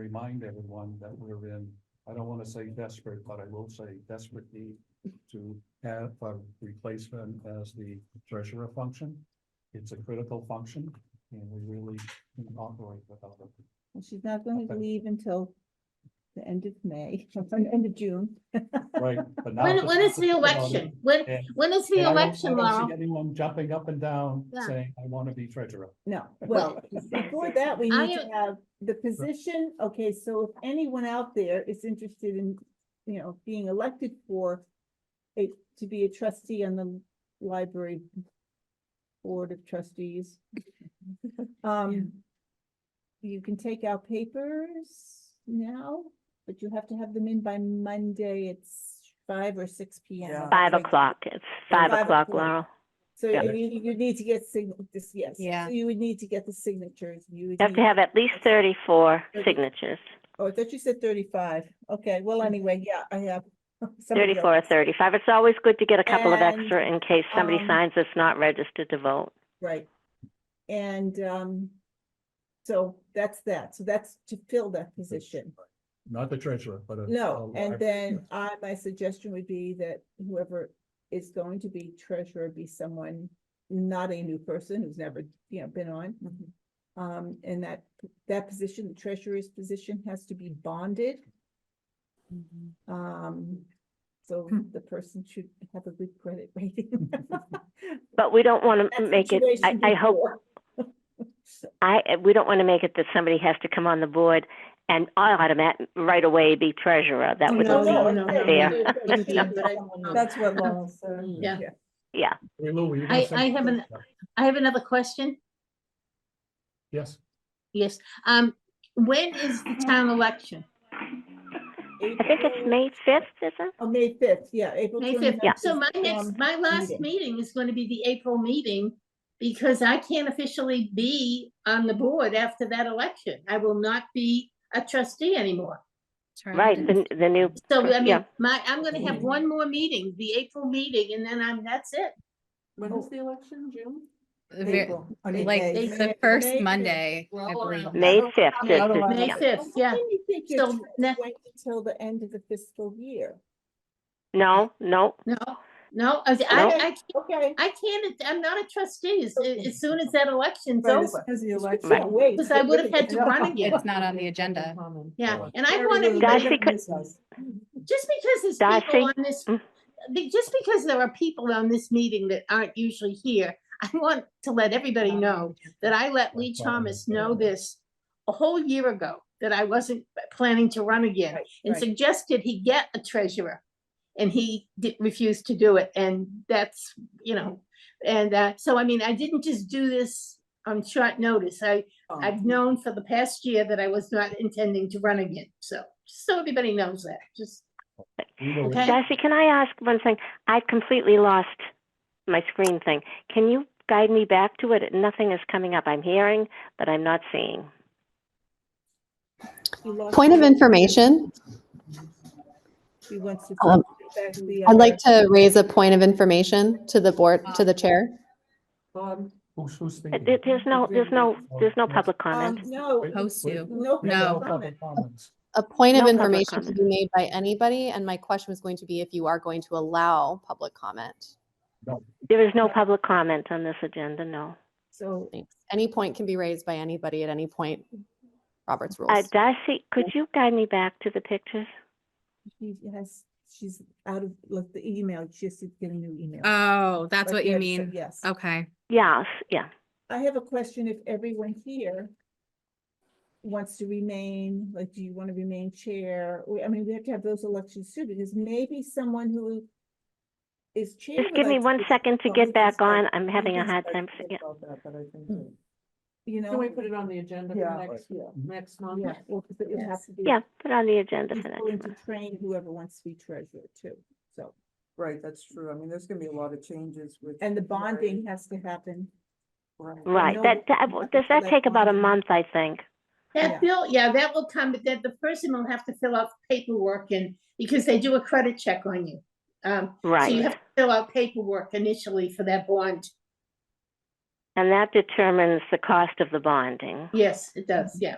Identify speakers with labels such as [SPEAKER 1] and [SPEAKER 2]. [SPEAKER 1] remind everyone that we're in, I don't want to say desperate, but I will say desperate need to have a replacement as the treasurer function. It's a critical function and we really can operate without it.
[SPEAKER 2] And she's not going to
[SPEAKER 1] Okay.
[SPEAKER 2] leave until the end of May, or the end of June.
[SPEAKER 1] Right, but now.
[SPEAKER 3] When, when is the election? When,
[SPEAKER 1] Yeah.
[SPEAKER 3] when is the
[SPEAKER 1] And I don't- I
[SPEAKER 3] election,
[SPEAKER 1] don't see
[SPEAKER 3] Laurel?
[SPEAKER 1] Anyone jumping up and down
[SPEAKER 3] Yeah.
[SPEAKER 1] saying, I want to be treasurer.
[SPEAKER 2] No, well, before that, we
[SPEAKER 3] I
[SPEAKER 2] need to have the position. Okay, so if anyone out there is interested in, you know, being elected for it, to be a trustee on the library board of trustees. Um, you can take out papers now, but you have to have them in by Monday. It's five or six P M.
[SPEAKER 4] Yeah.
[SPEAKER 5] Five o'clock, it's five
[SPEAKER 2] five
[SPEAKER 5] o'clock,
[SPEAKER 2] o'clock.
[SPEAKER 5] Laurel.
[SPEAKER 2] So
[SPEAKER 5] Yeah.
[SPEAKER 2] you, you need to get sign, this, yes.
[SPEAKER 4] Yeah.
[SPEAKER 2] So You would need to get the signatures, you would.
[SPEAKER 5] You have to
[SPEAKER 2] need-
[SPEAKER 5] have at least thirty-four
[SPEAKER 2] Thirty.
[SPEAKER 5] signatures,
[SPEAKER 2] Oh, I thought you said thirty-five, okay, well, anyway, yeah, I have. some of
[SPEAKER 5] thirty-four or
[SPEAKER 2] those.
[SPEAKER 5] thirty-five. It's always good to get a couple of
[SPEAKER 2] And,
[SPEAKER 5] extra in case somebody
[SPEAKER 2] um,
[SPEAKER 5] signs that's not registered to vote.
[SPEAKER 2] Right, and, um, so that's that, so that's to fill that
[SPEAKER 5] Mm-hmm.
[SPEAKER 2] position.
[SPEAKER 1] Not the treasurer, but. a-
[SPEAKER 2] No,
[SPEAKER 1] a-
[SPEAKER 2] and then I, my suggestion would be that whoever is going to be treasurer be someone, not a new person who's never, you know, been on.
[SPEAKER 5] Mm-hmm.
[SPEAKER 2] Um, and that, that position, the treasurer's position has to be bonded.
[SPEAKER 5] Mm-hmm.
[SPEAKER 2] Um, so
[SPEAKER 5] Hmm.
[SPEAKER 2] the person should have a good credit rating.
[SPEAKER 5] But we don't want to
[SPEAKER 2] That
[SPEAKER 5] make it, I,
[SPEAKER 2] situation
[SPEAKER 5] I hope,
[SPEAKER 2] before.
[SPEAKER 5] I, uh, we don't want to make it that somebody has to come on the board and automatic, right away be treasurer. That
[SPEAKER 3] Oh,
[SPEAKER 5] would
[SPEAKER 3] no,
[SPEAKER 5] be
[SPEAKER 3] no, no, no.
[SPEAKER 5] unfair.
[SPEAKER 4] That's what Laurel said.
[SPEAKER 3] Yeah,
[SPEAKER 5] Mm. Yeah,
[SPEAKER 1] Hey, Lou, were you gonna
[SPEAKER 3] I-
[SPEAKER 1] say
[SPEAKER 3] I have an-
[SPEAKER 1] something?
[SPEAKER 3] I have another question.
[SPEAKER 1] Yes,
[SPEAKER 3] Yes, um, when is the town election?
[SPEAKER 5] I think it's
[SPEAKER 2] April-
[SPEAKER 5] May fifth, is it?
[SPEAKER 2] Oh, May fifth, yeah, April.
[SPEAKER 3] May fifth.
[SPEAKER 2] 29th
[SPEAKER 3] So
[SPEAKER 2] is
[SPEAKER 3] my
[SPEAKER 2] the,
[SPEAKER 3] next,
[SPEAKER 2] um,
[SPEAKER 3] my last
[SPEAKER 2] meeting.
[SPEAKER 3] meeting is going to be the April meeting because I can't officially be on the board after that election. I will not be a trustee anymore.
[SPEAKER 5] Right, the, the new,
[SPEAKER 3] So I mean,
[SPEAKER 5] Yeah.
[SPEAKER 3] my, I'm going to have one more meeting, the April meeting, and then I'm, that's it.
[SPEAKER 4] When is the election, June?
[SPEAKER 6] The ver-
[SPEAKER 2] April. I mean,
[SPEAKER 6] Like
[SPEAKER 2] May.
[SPEAKER 6] the
[SPEAKER 2] May- May
[SPEAKER 6] first
[SPEAKER 2] fifth.
[SPEAKER 6] Monday,
[SPEAKER 4] Well,
[SPEAKER 6] I
[SPEAKER 4] or-
[SPEAKER 6] believe.
[SPEAKER 5] May fifth.
[SPEAKER 3] May
[SPEAKER 5] is- yeah.
[SPEAKER 2] Well,
[SPEAKER 3] fifth,
[SPEAKER 2] why
[SPEAKER 3] yeah.
[SPEAKER 2] do you think you're
[SPEAKER 3] So
[SPEAKER 2] trying to
[SPEAKER 3] ne-
[SPEAKER 2] Wait until the end of the fiscal year,
[SPEAKER 5] No, no,
[SPEAKER 3] No, no, I, I,
[SPEAKER 5] No.
[SPEAKER 3] I can't
[SPEAKER 2] okay?
[SPEAKER 3] I can't, I'm not a trustee as, as soon as that election's
[SPEAKER 2] Right, as
[SPEAKER 3] over,
[SPEAKER 4] Is the
[SPEAKER 2] Right.
[SPEAKER 4] election?
[SPEAKER 5] Right.
[SPEAKER 2] Wait.
[SPEAKER 3] because I would have had to run again.
[SPEAKER 6] It's not on the agenda.
[SPEAKER 3] Yeah,
[SPEAKER 1] Right.
[SPEAKER 3] and I want to,
[SPEAKER 5] Darcy
[SPEAKER 3] be-
[SPEAKER 5] could-
[SPEAKER 3] just because there's
[SPEAKER 5] Darcy?
[SPEAKER 3] people on this,
[SPEAKER 5] Mm.
[SPEAKER 3] be- just because there are people on this meeting that aren't usually here, I want to let everybody know that I let Lee Thomas know this a whole year ago, that I wasn't planning to run again,
[SPEAKER 2] Right,
[SPEAKER 3] and
[SPEAKER 2] right.
[SPEAKER 3] suggested he get a treasurer. And he did, refused to do it, and that's, you know, and, uh, so I mean, I didn't just do this on short notice. I,
[SPEAKER 2] Uh-huh.
[SPEAKER 3] I've known for the past year that I was not intending to run again, so, so everybody knows that, just,
[SPEAKER 1] we were-
[SPEAKER 3] Okay.
[SPEAKER 5] Darcy, can I ask one thing? I completely lost my screen thing. Can you guide me back to it? Nothing is coming up. I'm hearing, but I'm not seeing. Uh,
[SPEAKER 2] You lost
[SPEAKER 7] Point of
[SPEAKER 2] me.
[SPEAKER 7] information,
[SPEAKER 2] She wants to.
[SPEAKER 7] Um,
[SPEAKER 2] put back the
[SPEAKER 7] I'd
[SPEAKER 2] other-
[SPEAKER 7] like to raise a point of information to the board, to the chair.
[SPEAKER 1] Um, Who's, who's
[SPEAKER 5] Uh,
[SPEAKER 1] speaking?
[SPEAKER 5] there- There's no, there's no, there's
[SPEAKER 1] Oh,
[SPEAKER 5] no public
[SPEAKER 2] Um,
[SPEAKER 5] comment.
[SPEAKER 2] no,
[SPEAKER 1] Wait,
[SPEAKER 6] Post
[SPEAKER 1] wait,
[SPEAKER 6] to.
[SPEAKER 2] no.
[SPEAKER 1] we have
[SPEAKER 6] No.
[SPEAKER 1] public comments.
[SPEAKER 7] A point of
[SPEAKER 5] No public
[SPEAKER 7] information to
[SPEAKER 5] comment.
[SPEAKER 7] be made by anybody, and my question was going to be if you are going to allow public comment.
[SPEAKER 5] There is no public comment on this agenda, no.
[SPEAKER 2] So
[SPEAKER 7] Thanks. Any point can be raised by anybody at any point, Robert's
[SPEAKER 5] Uh,
[SPEAKER 7] rules.
[SPEAKER 5] Darcy, could you guide me back to the pictures?
[SPEAKER 2] she has, she's out of, look, the email, she has to get a new email.
[SPEAKER 6] Oh, that's
[SPEAKER 2] But
[SPEAKER 6] what you
[SPEAKER 2] yes,
[SPEAKER 6] mean.
[SPEAKER 2] Yes.
[SPEAKER 6] Okay.
[SPEAKER 5] Yes, yeah.
[SPEAKER 2] I have a question if everyone here wants to remain, like, do you want to remain chair? We- I mean, we have to have those elections too, because maybe someone who is chair.
[SPEAKER 5] Just
[SPEAKER 2] would
[SPEAKER 5] give me
[SPEAKER 2] like to
[SPEAKER 5] one
[SPEAKER 2] be-
[SPEAKER 5] second to
[SPEAKER 2] Oh, we
[SPEAKER 5] get
[SPEAKER 2] can
[SPEAKER 5] back
[SPEAKER 2] start-
[SPEAKER 5] on. I'm
[SPEAKER 2] we
[SPEAKER 5] having a
[SPEAKER 2] can
[SPEAKER 5] hard
[SPEAKER 2] start
[SPEAKER 5] time.
[SPEAKER 2] to
[SPEAKER 5] yeah.
[SPEAKER 2] think about that, but I think that, Hmm. You know.
[SPEAKER 4] Can we put it on the agenda
[SPEAKER 2] Yeah.
[SPEAKER 4] for next,
[SPEAKER 2] Yeah.
[SPEAKER 4] next month?
[SPEAKER 2] Yeah, well, 'cause it would have
[SPEAKER 4] Yes.
[SPEAKER 2] to be.
[SPEAKER 5] Yeah, put on the agenda
[SPEAKER 2] he's
[SPEAKER 5] for next
[SPEAKER 2] willing
[SPEAKER 5] month.
[SPEAKER 2] to train whoever wants to be treasurer too, so,
[SPEAKER 4] Right, that's true. I mean, there's gonna be a lot of changes with.
[SPEAKER 2] and the bonding has to happen.
[SPEAKER 5] Right,
[SPEAKER 2] know that
[SPEAKER 5] that, that,
[SPEAKER 2] we have
[SPEAKER 5] does
[SPEAKER 2] to
[SPEAKER 5] that
[SPEAKER 2] let
[SPEAKER 5] take about a
[SPEAKER 2] Wanda-
[SPEAKER 5] month, I think?
[SPEAKER 2] Yeah.
[SPEAKER 3] that bill, yeah, that will come, but then the person will have to fill out paperwork and, because they do a credit check on you. Um, so you have
[SPEAKER 5] Right.
[SPEAKER 3] to fill out paperwork initially for that bond,
[SPEAKER 5] And that determines the cost of the bonding.
[SPEAKER 3] yes, it does, yeah,